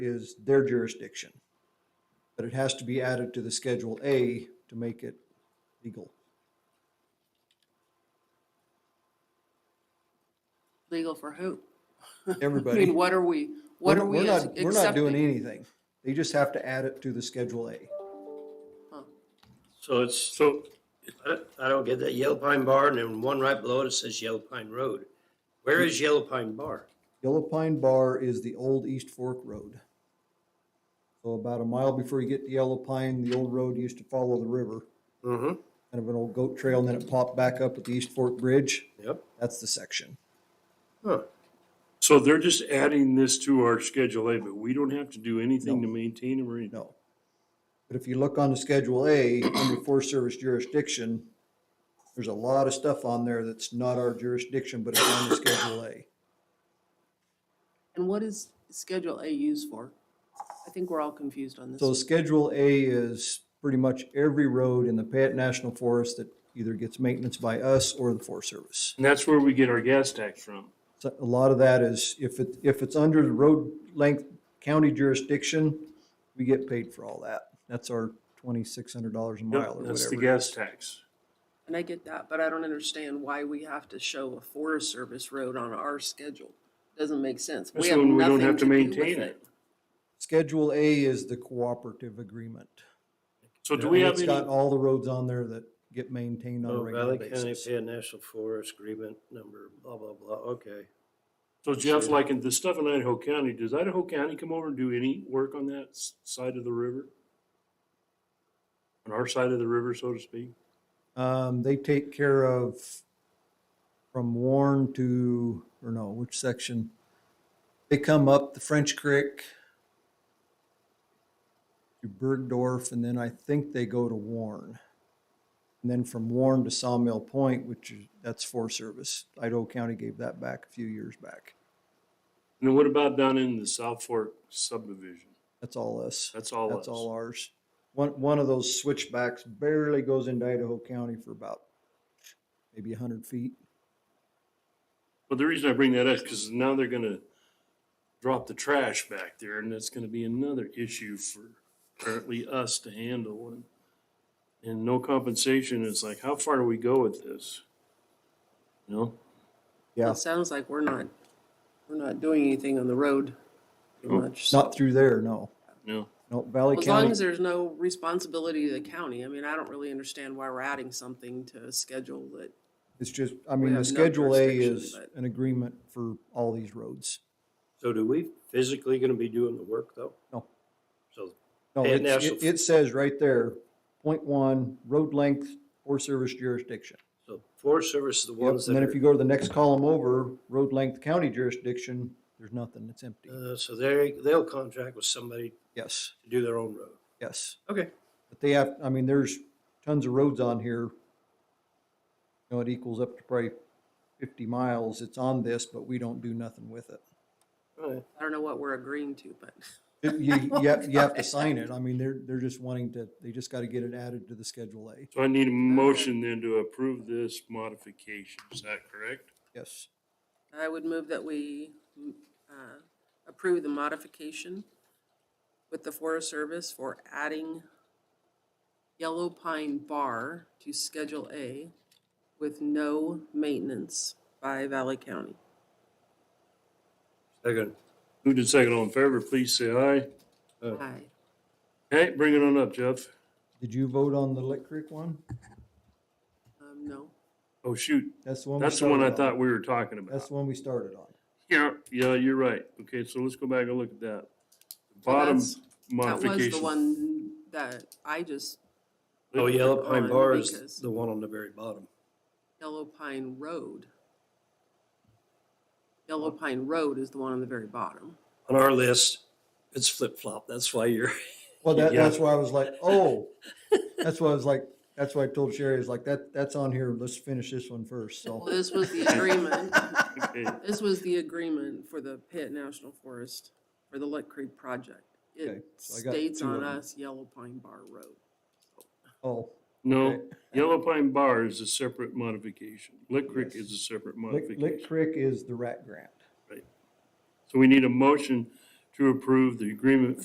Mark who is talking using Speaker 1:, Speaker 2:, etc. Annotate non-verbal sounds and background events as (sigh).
Speaker 1: is their jurisdiction. But it has to be added to the Schedule A to make it legal.
Speaker 2: Legal for who? (laughs) I
Speaker 1: Everybody.
Speaker 2: mean, what are we, what
Speaker 1: We're
Speaker 2: are
Speaker 1: not-
Speaker 2: we
Speaker 1: we're
Speaker 2: as-
Speaker 1: not- We're not doing
Speaker 2: accepting?
Speaker 1: anything. They just have to add it to the Schedule A.
Speaker 3: So it's, so I don't get that Yellow Pine Bar and then one right below it says Yellow Pine Road. Where is Yellow Pine Bar?
Speaker 1: Yellow Pine Bar is the old East Fork Road. So about a mile before you get to Yellow Pine, the old road used to follow the river,
Speaker 3: Mm-hmm.
Speaker 1: kind of an old goat trail, and then it popped back up at the East Fork Bridge.
Speaker 3: Yep.
Speaker 1: That's the section.
Speaker 3: Huh.
Speaker 4: So they're just adding this to our Schedule A, but we don't have to do anything to maintain them or anything?
Speaker 1: No. But if you look on the Schedule A, under Forest Service jurisdiction, there's a lot of stuff on there that's not our jurisdiction, but it's on the Schedule A.
Speaker 2: And what is Schedule A used for? I think we're all confused on this.
Speaker 1: So
Speaker 2: one.
Speaker 1: Schedule A is pretty much every road in the Payette National Forest that either gets maintenance by us or the Forest Service.
Speaker 4: And that's where we get our gas tax from.
Speaker 1: So a lot of that is, if it, if it's under the road length county jurisdiction, we get paid for all that. That's our twenty-six hundred dollars a mile or
Speaker 4: That's the
Speaker 1: whatever.
Speaker 4: gas tax.
Speaker 2: And I get that, but I don't understand why we have to show a Forest Service road on our schedule. Doesn't make sense. We
Speaker 4: That's
Speaker 2: have
Speaker 4: when we don't
Speaker 2: nothing
Speaker 4: have to
Speaker 2: do with
Speaker 4: maintain it.
Speaker 1: Schedule A is the cooperative agreement.
Speaker 4: So do
Speaker 3: Yeah,
Speaker 4: we
Speaker 1: And
Speaker 4: have
Speaker 1: It's got
Speaker 4: any,
Speaker 1: all the roads on there that get maintained on a
Speaker 3: Oh,
Speaker 1: regular
Speaker 3: Valley County
Speaker 1: basis.
Speaker 3: Pan National Forest Agreement Number blah, blah, blah. Okay.
Speaker 4: so Jeff, like in the stuff in Idaho County, does Idaho County come over and do any work on that s- side of the river? On our side of the river, so to speak?
Speaker 1: Um, they take care of from Warren to, or no, which section? They come up the French Creek to Bergdorf, and then I think they go to Warren. And then from Warren to Sawmill Point, which is, that's Forest Service. Idaho County gave that back a few years back.
Speaker 4: And then what about down in the South Fork subdivision?
Speaker 1: That's all us.
Speaker 4: That's all
Speaker 1: That's all
Speaker 4: us.
Speaker 1: ours. One, one of those switchbacks barely goes into Idaho County for about maybe a hundred feet.
Speaker 4: But the reason I bring that up is because now they're gonna drop the trash back there and that's gonna be another issue for apparently us to handle. and- And no compensation, it's like, how far do we go with this? You know?
Speaker 1: Yeah.
Speaker 2: It sounds like we're not, we're not doing anything on the road pretty
Speaker 4: Nope.
Speaker 2: much.
Speaker 1: Not through there, no.
Speaker 4: No.
Speaker 1: No, Valley
Speaker 2: As long as
Speaker 1: County,
Speaker 2: there's no responsibility to the county. I mean, I don't really understand why we're adding something to a schedule that,
Speaker 1: it's just, I
Speaker 2: we
Speaker 1: mean, the
Speaker 2: have no
Speaker 1: Schedule A
Speaker 2: jurisdiction,
Speaker 1: is
Speaker 2: but-
Speaker 1: an agreement for all these roads.
Speaker 3: So do we physically going to be doing the work though?
Speaker 1: No.
Speaker 3: So,
Speaker 1: No,
Speaker 3: And
Speaker 1: it's- it,
Speaker 3: national-
Speaker 1: it says right there, point one, road length or service jurisdiction.
Speaker 3: so Forest Service is the
Speaker 1: Yep,
Speaker 3: ones
Speaker 1: and
Speaker 3: that
Speaker 1: then if you go
Speaker 3: are,
Speaker 1: to the next column over, road length county jurisdiction, there's nothing, it's empty.
Speaker 3: uh, so they, they'll contract with somebody
Speaker 1: Yes,
Speaker 3: to do their own road.
Speaker 1: yes.
Speaker 3: Okay.
Speaker 1: But they have, I mean, there's tons of roads on here. You know, it equals up to probably fifty miles. It's on this, but we don't do nothing with it.
Speaker 3: All right.
Speaker 2: I don't know what we're agreeing to, but
Speaker 1: You, you you have, you have to sign it. I mean, they're, they're just wanting to, they just gotta get it added to the Schedule A.
Speaker 4: So I need a motion then to approve this modification, is that correct?
Speaker 1: Yes.
Speaker 2: I would move that we mm, uh, approve the modification with the Forest Service for adding Yellow Pine Bar to Schedule A with no maintenance by Valley County.
Speaker 3: Second.
Speaker 4: Moved and second, all in favor, please say aye.
Speaker 2: Aye.
Speaker 4: Hey, bring it on up, Jeff.
Speaker 1: Did you vote on the Lick Creek one?
Speaker 2: Um, no.
Speaker 4: Oh, shoot,
Speaker 1: That's the one. we
Speaker 4: that's the one I
Speaker 1: started on.
Speaker 4: thought we were talking about.
Speaker 1: That's the one we started on.
Speaker 4: Yeah, yeah, you're right. Okay, so let's go back and look at that. Bottom
Speaker 2: that's- That was the
Speaker 4: modification.
Speaker 2: one that I just,
Speaker 3: Oh, Yellow
Speaker 2: on
Speaker 3: Pine Bar is
Speaker 2: because-
Speaker 3: the one on the very bottom.
Speaker 2: Yellow Pine Road. Yellow Pine Road is the one on the very bottom.
Speaker 3: On our list, it's flip flop. That's why you're.
Speaker 1: Well, that,
Speaker 4: Yeah.
Speaker 1: that's why I was like, oh, that's why I was like, that's why I told Sherry, is like, that, that's on here. Let's finish this one first.
Speaker 2: Well,
Speaker 1: So,
Speaker 2: this was the agreement.
Speaker 4: (laughs) Okay,
Speaker 2: This was the agreement for the Pitt National Forest for the Lick Creek project.
Speaker 1: Okay,
Speaker 2: It
Speaker 1: so I got
Speaker 2: states
Speaker 1: two of
Speaker 2: on
Speaker 1: them.
Speaker 2: us Yellow Pine Bar Road.
Speaker 1: oh,
Speaker 4: No,
Speaker 1: Okay.
Speaker 4: Yellow Pine Bar is a separate modification. Lick Creek
Speaker 1: Yes.
Speaker 4: is a separate
Speaker 1: Lick, Lick
Speaker 4: modification.
Speaker 1: Creek is the rat grant.
Speaker 4: So we need a motion to approve the agreement